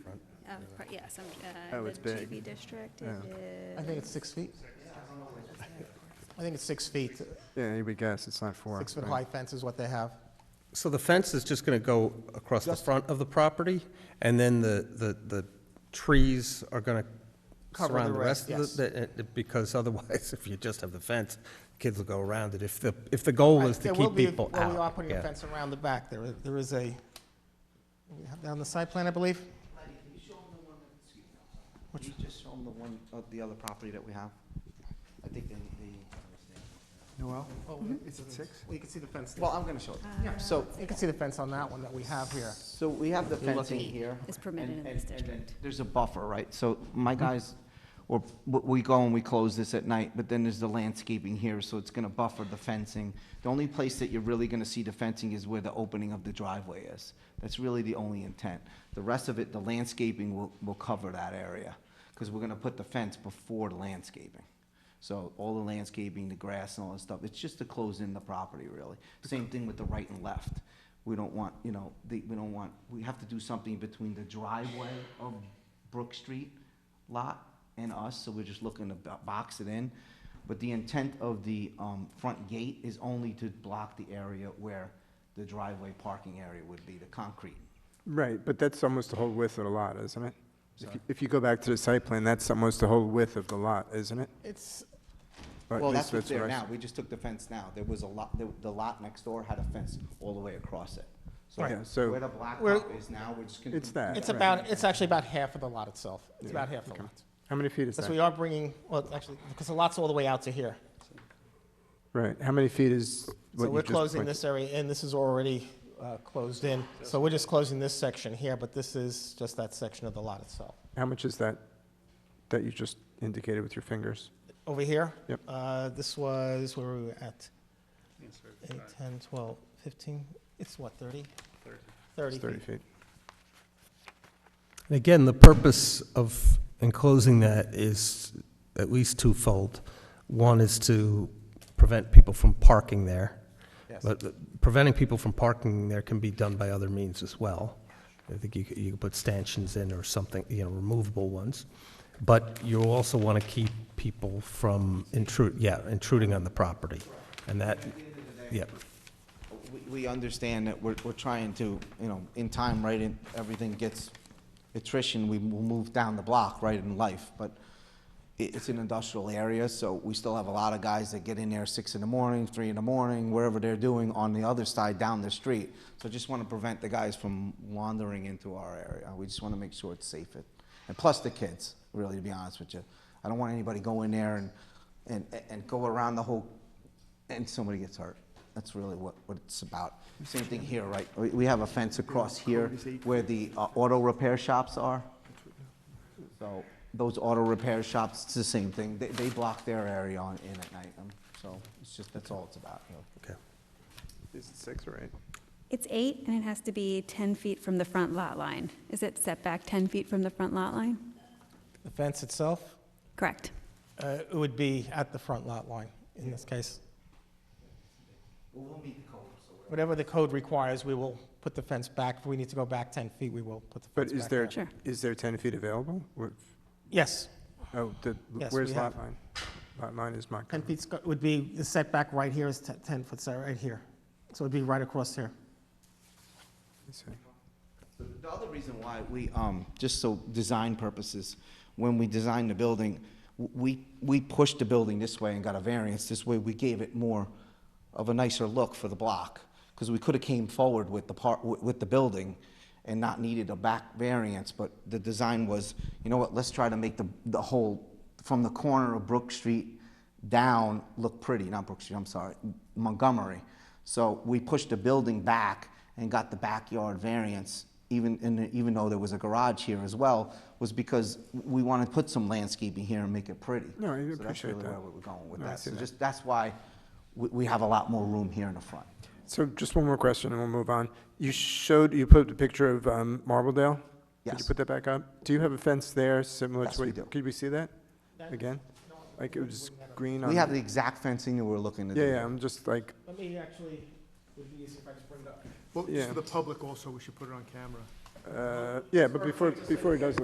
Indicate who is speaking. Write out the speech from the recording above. Speaker 1: yes, I'm,
Speaker 2: Oh,
Speaker 1: uh,
Speaker 2: it's
Speaker 1: the
Speaker 2: big.
Speaker 1: GB district, it
Speaker 2: Yeah.
Speaker 1: is.
Speaker 3: I think it's six feet. I think it's six feet.
Speaker 2: Yeah, you would guess, it's not four.
Speaker 3: Six-foot
Speaker 2: right?
Speaker 3: high fence is what they have.
Speaker 4: So the fence is just going to go across the front of the property, and then the, the, the trees are going to
Speaker 3: Cover the
Speaker 4: surround the
Speaker 3: rest,
Speaker 4: rest of the- the, uh, because otherwise, if you just have the fence, kids will go around it, if the, if the goal is to
Speaker 3: There will
Speaker 4: keep
Speaker 3: be-
Speaker 4: people out.
Speaker 3: Well, we are putting a
Speaker 4: yeah.
Speaker 3: fence around the back. There is, there is a, we have that on the side plan, I believe?
Speaker 5: Can you show them the one, that- excuse me, I'm sorry. Can you just show them the one, uh, the other property that we have? I think they, they.
Speaker 2: Noel, is it six?
Speaker 3: Mm-hmm. Well, you can see the fence.
Speaker 5: Well, I'm gonna show them. Yeah. So,
Speaker 3: You can see the fence on that one that we have here.
Speaker 5: so we have the
Speaker 1: Eight
Speaker 5: fencing
Speaker 1: feet
Speaker 5: here.
Speaker 1: is permitted
Speaker 5: and-
Speaker 1: in this
Speaker 5: and- and then
Speaker 1: district.
Speaker 5: There's a buffer, right? So my guys, or we go and we close this at night, but then there's the landscaping here, so it's gonna buffer the fencing. The only place that you're really gonna see the fencing is where the opening of the driveway is. That's really the only intent. The rest of it, the landscaping will, will cover that area, because we're gonna put the fence before the landscaping. So all the landscaping, the grass and all that stuff, it's just to close in the property, really. Same thing with the right and left. We don't want, you know, the, we don't want, we have to do something between the driveway of Brook Street lot and us, so we're just looking to bo- box it in. But the intent of the, um, front gate is only to block the area where the driveway parking area would be, the concrete.
Speaker 2: Right, but that's almost the whole width of the lot, isn't it? If you- If you go back to the site plan, that's almost the whole width of the lot, isn't it?
Speaker 3: It's,
Speaker 2: Or at
Speaker 5: Well,
Speaker 2: least
Speaker 5: that's what's there
Speaker 2: what I s-
Speaker 5: now, we just took the fence now, there was a lot, the, the lot next door had a fence all the way across it. So
Speaker 2: Right. Yeah, so-
Speaker 5: where the blacktop
Speaker 3: We're-
Speaker 5: is now, we're just gonna.
Speaker 2: It's that.
Speaker 3: it's
Speaker 2: right.
Speaker 3: about, it's actually about half of the lot itself. It's about half the lot.
Speaker 2: How many feet is
Speaker 3: Because we
Speaker 2: that?
Speaker 3: are bringing, well, actually, because the lot's all the way out to here.
Speaker 2: Right, how many feet is what
Speaker 3: So
Speaker 2: you
Speaker 3: we're
Speaker 2: just
Speaker 3: closing
Speaker 2: pointed-
Speaker 3: this area in, this is already uh, closed in. So we're just closing this section here, but this is just that section of the lot itself.
Speaker 2: How much is that, that you just indicated with your fingers?
Speaker 3: Over here?
Speaker 2: Yep.
Speaker 3: Uh, This was, where were we at? 8, 10, 12, 15, it's what, 30? 30.
Speaker 2: It's 30
Speaker 3: feet.
Speaker 2: feet.
Speaker 4: And again, the purpose of enclosing that is at least twofold. One is to prevent people from parking there.
Speaker 3: Yes.
Speaker 4: But the- preventing people from parking there can be done by other means as well. I think you could, you could put stanchions in or something, you know, removable ones. But you also want to keep people from intrude, yeah, intruding on the property. And that, yeah,
Speaker 5: We, we understand that we're, we're trying to, you know, in time, right, and everything gets attrition, we will move down the block, right, in life, but it, it's an industrial area, so we still have a lot of guys that get in there six in the morning, three in the morning, wherever they're doing, on the other side, down the street. So just wanna prevent the guys from wandering into our area, we just wanna make sure it's safe, and plus the kids, really, to be honest with you. I don't want anybody go in there and, and, and go around the whole and somebody gets hurt. That's really what, what it's about. Same thing here, right? We, we have a fence across here where the uh, auto repair shops are. So those auto repair shops, it's the same thing. They, they block their area on, in at night. Um, So it's just, that's all it's about, you know.
Speaker 4: okay.
Speaker 2: Is it six or eight?
Speaker 1: It's eight, and it has to be 10 feet from the front lot line. Is it set back 10 feet from the front lot line?
Speaker 3: The fence itself,
Speaker 1: Correct.
Speaker 3: uh, it would be at the front lot line in this case. Whatever the code requires, we will put the fence back. If we need to go back 10 feet, we will put the fence
Speaker 2: But
Speaker 3: back.
Speaker 2: is there,
Speaker 1: Sure.
Speaker 2: is there 10 feet available? Or-
Speaker 3: Yes,
Speaker 2: Oh, the-
Speaker 3: Yes,
Speaker 2: where's
Speaker 3: we
Speaker 2: lot
Speaker 3: have.
Speaker 2: line? Lot line is not
Speaker 3: 10
Speaker 2: covered.
Speaker 3: feet would be, the setback right here is 10 10 foot, so right here. So it'd be right across here.
Speaker 2: Let's see.
Speaker 5: So The other reason why we, um, just so design purposes, when we designed the building, w- we, we pushed the building this way and got a variance. This way, we gave it more of a nicer look for the block, because we could have came forward with the part, with with the building and not needed a back variance, but the design was, you know what, let's try to make the, the whole, from the corner of Brook Street down look pretty, not Brook Street, I'm sorry, Montgomery. So we pushed the building back and got the backyard variance, even, in, even though there was a garage here as well, was because we wanted to put some landscaping here and make it pretty.
Speaker 2: No, I
Speaker 5: So that's
Speaker 2: appreciate
Speaker 5: really
Speaker 2: that.
Speaker 5: where we were going with
Speaker 2: No, I
Speaker 5: that.
Speaker 2: see
Speaker 5: So
Speaker 2: that.
Speaker 5: just, that's why we, we have a lot more room here in the front.
Speaker 2: So just one more question, and we'll move on. You showed, you put the picture of um, Marbledale? Could you
Speaker 5: Yes.
Speaker 2: put that back up? Do you have a fence there similar to
Speaker 5: Yes,
Speaker 2: what?
Speaker 5: we
Speaker 2: you-
Speaker 5: do.
Speaker 2: Could we see that again? Like it was green on?
Speaker 5: We have the exact fencing that we're looking to do.
Speaker 2: Yeah, yeah, I'm just like,
Speaker 3: Let me actually, would be easy if I just bring it up.
Speaker 6: Well,
Speaker 2: Yeah.
Speaker 6: just for the public also, we should put it on camera.
Speaker 2: uh, yeah, but before, before he does